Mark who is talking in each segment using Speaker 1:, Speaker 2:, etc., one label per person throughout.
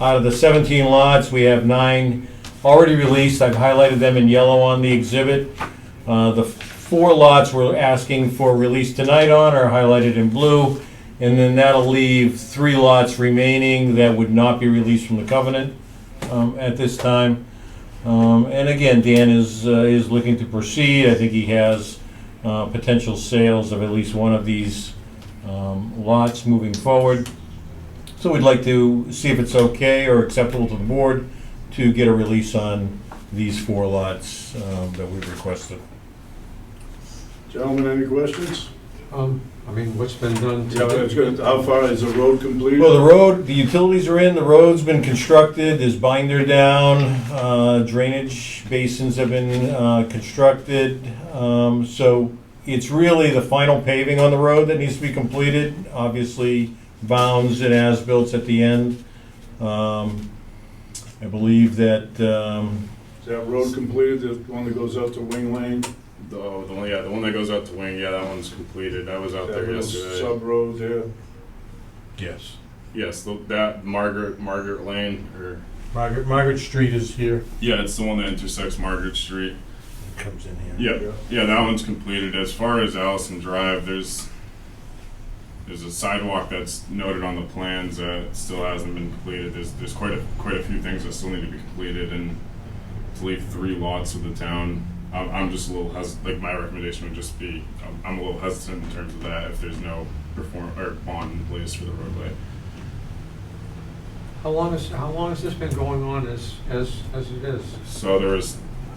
Speaker 1: Out of the 17 lots, we have nine already released. I've highlighted them in yellow on the exhibit. Uh, The four lots we're asking for release tonight on are highlighted in blue. And then that'll leave three lots remaining that would not be released from the covenant um, at this time. Um, And again, Dan is, uh, is looking to proceed. I think he has uh, potential sales of at least one of these um, lots moving forward. So we'd like to see if it's okay or acceptable to the board to get a release on these four lots um, that we've requested.
Speaker 2: Gentlemen, any questions?
Speaker 3: Um, I mean, what's been done
Speaker 2: Yeah,
Speaker 3: to
Speaker 2: that's
Speaker 3: it?
Speaker 2: good. How far is the road completed?
Speaker 1: Well, the road, the utilities are in, the road's been constructed, there's binder down, uh, drainage basins have been uh, constructed. Um, So it's really the final paving on the road that needs to be completed. Obviously, bounds and as-built at the end. Um, I believe that um,
Speaker 2: Is that road completed, the one that goes out to Wing Lane?
Speaker 4: Oh, the one, yeah, the one that goes out to wing, yeah, that one's completed. I was out
Speaker 2: That
Speaker 4: Oh, there
Speaker 2: little
Speaker 4: yesterday.
Speaker 2: sub-road there?
Speaker 1: Yes.
Speaker 4: yes, the, that Margaret Margaret Lane, or
Speaker 1: Margaret, Margaret Street is here,
Speaker 4: yeah, it's the one that intersects Margaret Street.
Speaker 1: comes in here.
Speaker 4: Yeah, yeah, that one's completed. As far as Allison Drive, there's there's a sidewalk that's noted on the plans that still hasn't been completed. There's there's quite a quite a few things that still need to be completed, and to leave three lots of the town, I'm, I'm just a little hes- like my recommendation would just be I'm, I'm a little hesitant in terms of that if there's no perform or bond in place for the roadway.
Speaker 3: How long is, how long has this been going on as, as, as it is?
Speaker 4: So there was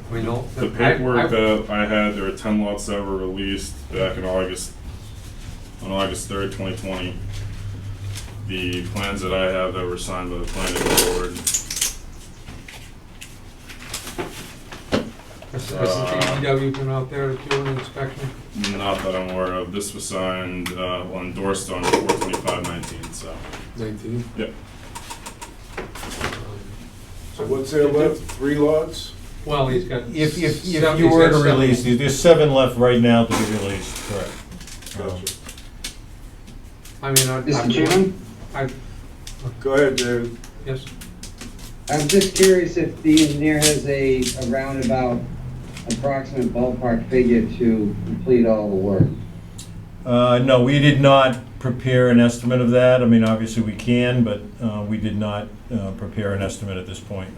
Speaker 3: I mean, no-
Speaker 4: The
Speaker 3: I- I-
Speaker 4: paperwork that I had, there were ten lots that were released back in August, on August third, twenty twenty. The plans that I have that were signed by the planning board,
Speaker 3: Has has the
Speaker 4: uh,
Speaker 3: DPW been out there doing an inspection?
Speaker 4: not that I'm aware of, this was signed, uh, well endorsed on four twenty-five nineteen, so.
Speaker 5: Nineteen.
Speaker 4: Yep,
Speaker 2: So what's there left? Three lots?
Speaker 3: Well, he's got.
Speaker 1: If, if, if
Speaker 3: seven-
Speaker 1: you
Speaker 3: he's
Speaker 1: were
Speaker 3: got
Speaker 1: to
Speaker 3: seven.
Speaker 1: release these, there's seven left right now to be released, correct. Um,
Speaker 2: Gotcha.
Speaker 3: I mean, I.
Speaker 6: Mr. Chairman,
Speaker 3: I,
Speaker 2: Go ahead, David.
Speaker 3: yes,
Speaker 6: I'm just curious if the engineer has a, a roundabout approximate ballpark figure to complete all the work.
Speaker 1: Uh, no, we did not prepare an estimate of that. I mean, obviously we can, but, uh, we did not, uh, prepare an estimate at this point.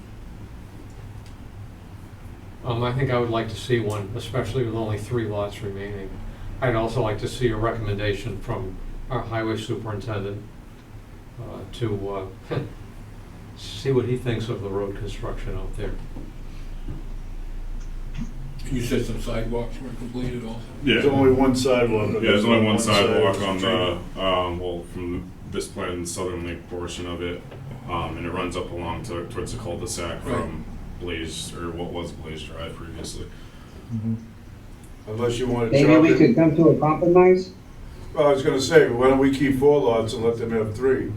Speaker 3: um, I think I would like to see one, especially with only three lots remaining. I'd also like to see a recommendation from our highway superintendent uh, to, uh, see what he thinks of the road construction out there.
Speaker 5: You said some sidewalks were completed also?
Speaker 4: yeah,
Speaker 2: There's only one sidewalk.
Speaker 4: yeah, there's only one sidewalk on the, um, well, from this plan, southerly portion of it. Um, and it runs up along to, towards the cul-de-sac from Blaze, or what was Blaze Drive previously.
Speaker 1: Mm-hmm.
Speaker 2: Unless you want to
Speaker 6: Maybe
Speaker 2: chop
Speaker 6: we
Speaker 2: it.
Speaker 6: could come to a compromise?
Speaker 2: Well, I was gonna say, why don't we keep four lots and let them have three?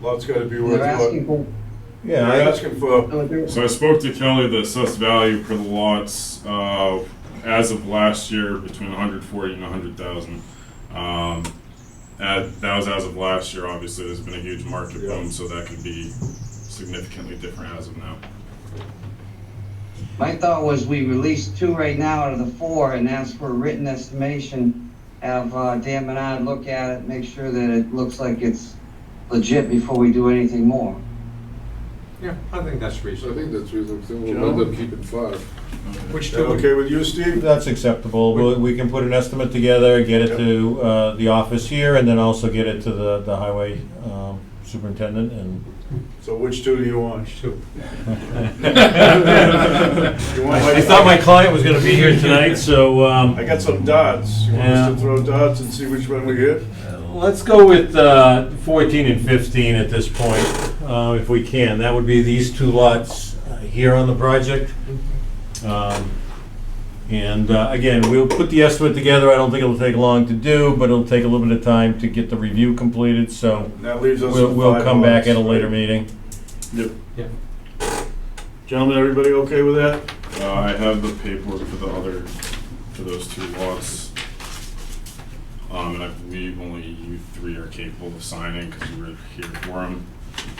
Speaker 2: Lots gotta be worth
Speaker 6: They're asking
Speaker 2: what?
Speaker 6: for,
Speaker 1: Yeah,
Speaker 2: They're
Speaker 1: I-
Speaker 2: asking for,
Speaker 6: no, they're-
Speaker 4: So I spoke to Kelly, the assessed value for the lots, uh, as of last year, between hundred forty and hundred thousand. Um, that, that was as of last year, obviously, there's been a huge market boom, so that could be significantly different as of now.
Speaker 6: my thought was we release two right now out of the four and ask for a written estimation. Have, uh, Dan Bernard look at it, make sure that it looks like it's legit before we do anything more.
Speaker 3: Yeah, I think that's
Speaker 5: So I
Speaker 3: reasonable.
Speaker 5: think that's reasonable, we'll end up keeping five.
Speaker 3: Which
Speaker 2: that
Speaker 3: do we
Speaker 2: okay with you, Steve?
Speaker 1: that's acceptable. We, we can put an estimate together, get it to, uh, the office here, and then also get it to the, the highway, um, superintendent and.
Speaker 2: So which two do you want?
Speaker 3: two.
Speaker 2: You want
Speaker 1: I thought my client was gonna be here tonight, so, um.
Speaker 2: I got some dots. You want us to
Speaker 1: Yeah.
Speaker 2: throw dots and see which one we hit?
Speaker 1: Let's go with uh, 14 and 15 at this point, uh, if we can. That would be these two lots uh, here on the project.
Speaker 3: Mm-hmm.
Speaker 1: Um, And uh, again, we'll put the estimate together. I don't think it'll take long to do, but it'll take a little bit of time to get the review completed, so
Speaker 2: And that leaves us
Speaker 1: we'll
Speaker 2: with
Speaker 1: we'll
Speaker 2: five
Speaker 1: come back
Speaker 2: lots.
Speaker 1: at a later meeting.
Speaker 4: Yep.
Speaker 3: Yeah.
Speaker 2: Gentlemen, everybody okay with that?
Speaker 4: Uh, I have the paperwork for the other, for those two lots. Um, and I believe only you three are capable of signing, because you were here for them.